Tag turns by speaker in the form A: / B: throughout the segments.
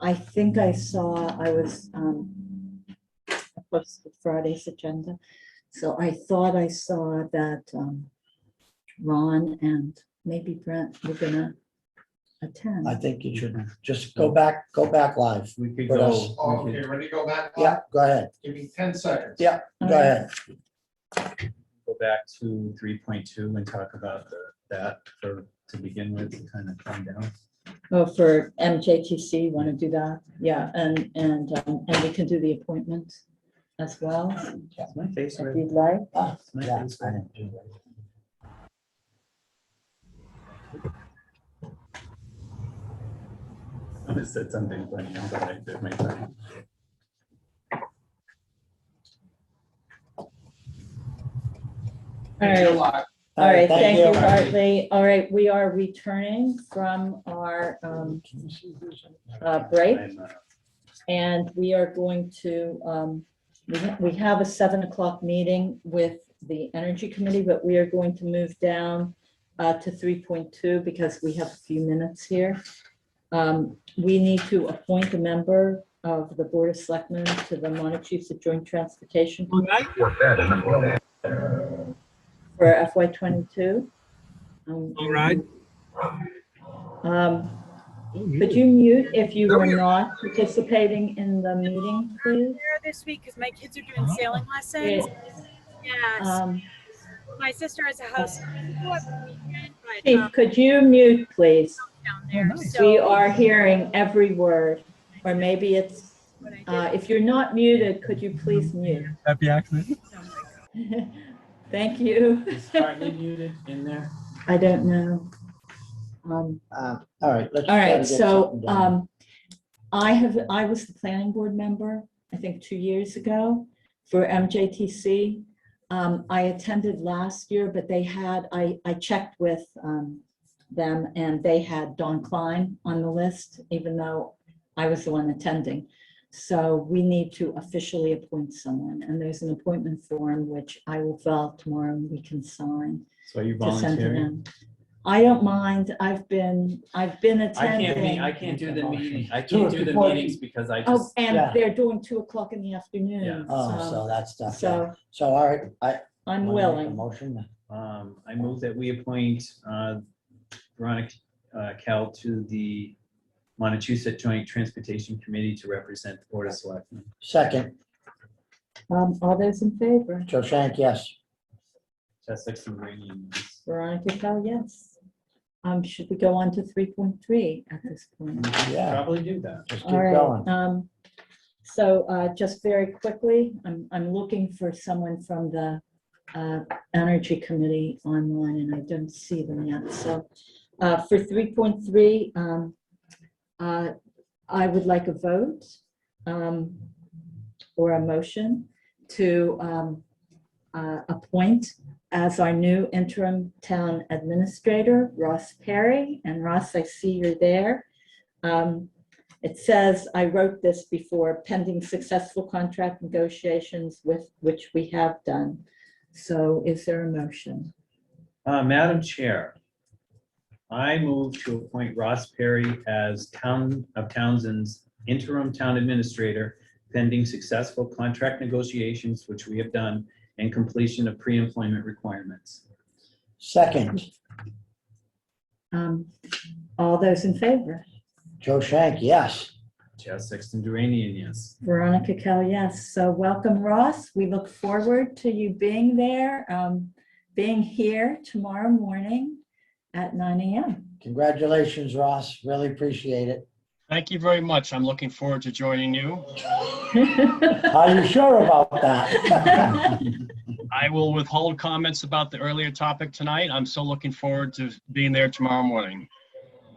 A: I think I saw, I was, um, I posted Friday's agenda, so I thought I saw that, um, Ron and maybe Brent were gonna
B: I
A: attend.
B: think you
C: Mm-hmm.
B: should just go back, go back live.
C: We could
B: What
C: go.
B: else?
C: we
D: Okay,
C: could-
D: ready to go back?
B: Yeah, go ahead,
D: Give me ten seconds.
B: Yeah. go ahead.
C: Go back to three point two and talk about the- that for, to begin with, to kind of calm down.
A: Oh, for MJTC, wanna do that? Yeah, and, and, um, and we can do the appointment as well,
C: Is my face
A: if
C: red?
A: you'd like.
B: Ah,
C: Is my
B: yeah,
C: face
B: I
C: red?
B: didn't do that.
C: I just said something funny, I'm sorry, that might be-
A: All right.
D: You're live.
A: All right, thank you,
D: Barb.
A: Bartley. All right, we are returning from our um, uh, break,
C: I'm, uh,
A: and we are going to, um, we ha- we have a seven o'clock meeting with the Energy Committee, but we are going to move down uh, to three point two because we have a few minutes here. Um, We need to appoint a member of the Board of Selectmen to the Montechusett Joint Transportation for FY twenty-two. Um,
E: All right.
A: Um, Could you mute if you were not participating in the meeting, please?
F: there this week because my kids are doing
A: Oh.
F: sailing lessons.
A: It-
F: Yes,
A: um,
F: my sister has a house but,
A: Chief,
F: um,
A: could you mute, please?
F: down there. So
A: We are hearing every word, or maybe it's,
F: what I did.
A: uh, if you're not muted, could you please mute?
E: Happy accident.
A: Thank you. I don't know. Um,
B: Uh, All right, let's.
A: All
B: try to
A: right,
B: get
A: so
B: something done.
A: um, I have, I was the planning board member, I think, two years ago for MJTC. Um, I attended last year, but they had, I, I checked with um, them and they had Don Klein on the list, even though I was the one attending. So we need to officially appoint someone and there's an appointment form which I will fill out tomorrow and we can sign
C: So are you
A: to send to
C: volunteering?
A: them. I don't mind. I've been, I've been
G: I can't be, I
A: attending.
G: can't do the
B: Motion.
G: meeting, I
B: Do it
G: can't do the
B: before you-
G: meetings because I
A: Oh,
G: just,
B: Yeah.
A: and they're doing two o'clock in the
G: Yeah.
A: afternoon.
B: Oh, so
A: So
B: that's not.
A: so
B: So, all right, I.
A: I'm
B: wanna make a
A: willing.
B: Motion.
C: Um, I move that we appoint, uh, Veronica, uh, Cal to the Montechusett Joint Transportation Committee to represent the Board of Selectmen.
B: Second,
A: Um, all those in favor?
B: Joe Shank, yes.
C: Essex and Rainey.
A: Veronica Cal, yes. Um, should we go on to three point three at this point?
B: Yeah,
C: Probably do that.
B: just keep
A: All right.
B: going.
A: Um, so, uh, just very quickly, I'm, I'm looking for someone from the, uh, Energy Committee online and I don't see them yet. So, uh, for three point three, um, uh, I would like a vote, um, or a motion to, um, uh, appoint as our new interim town administrator, Ross Perry. And Ross, I see you're there. Um, it says, I wrote this before, pending successful contract negotiations with, which we have done. So is there a motion?
C: Uh, Madam Chair, I move to appoint Ross Perry as Town of Townsend's interim town administrator pending successful contract negotiations, which we have done, and completion of pre-employment requirements.
B: Second,
A: Um, All those in favor?
B: Joe Shank, yes.
C: Chad Sexton Duranian, yes.
A: Veronica Kell, yes. So welcome, Ross. We look forward to you being there, um, being here tomorrow morning at nine AM.
B: Congratulations, Ross. Really appreciate it.
E: Thank you very much. I'm looking forward to joining you.
B: Are you sure about that?
E: I will withhold comments about the earlier topic tonight. I'm still looking forward to being there tomorrow morning.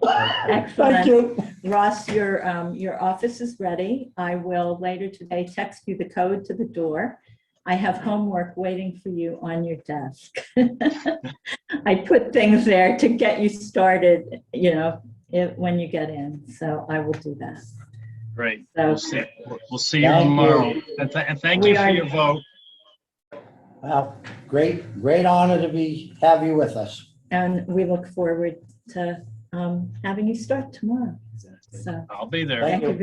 B: Thank
A: Excellent.
B: you.
A: Ross, your, um, your office is ready. I will later today text you the code to the door. I have homework waiting for you on your desk. I put things there to get you started, you know, if, when you get in, so I will do that.
E: Great.
A: So,
E: We'll see, we'll see you
B: Thank you.
E: tomorrow. And th- and thank
A: We
E: you for
A: are-
E: your vote.
B: Well, great, great honor to be, have you with us.
A: and we look forward to, um, having you start tomorrow, so.
E: I'll be there.
B: Thank
A: Thank you
B: you.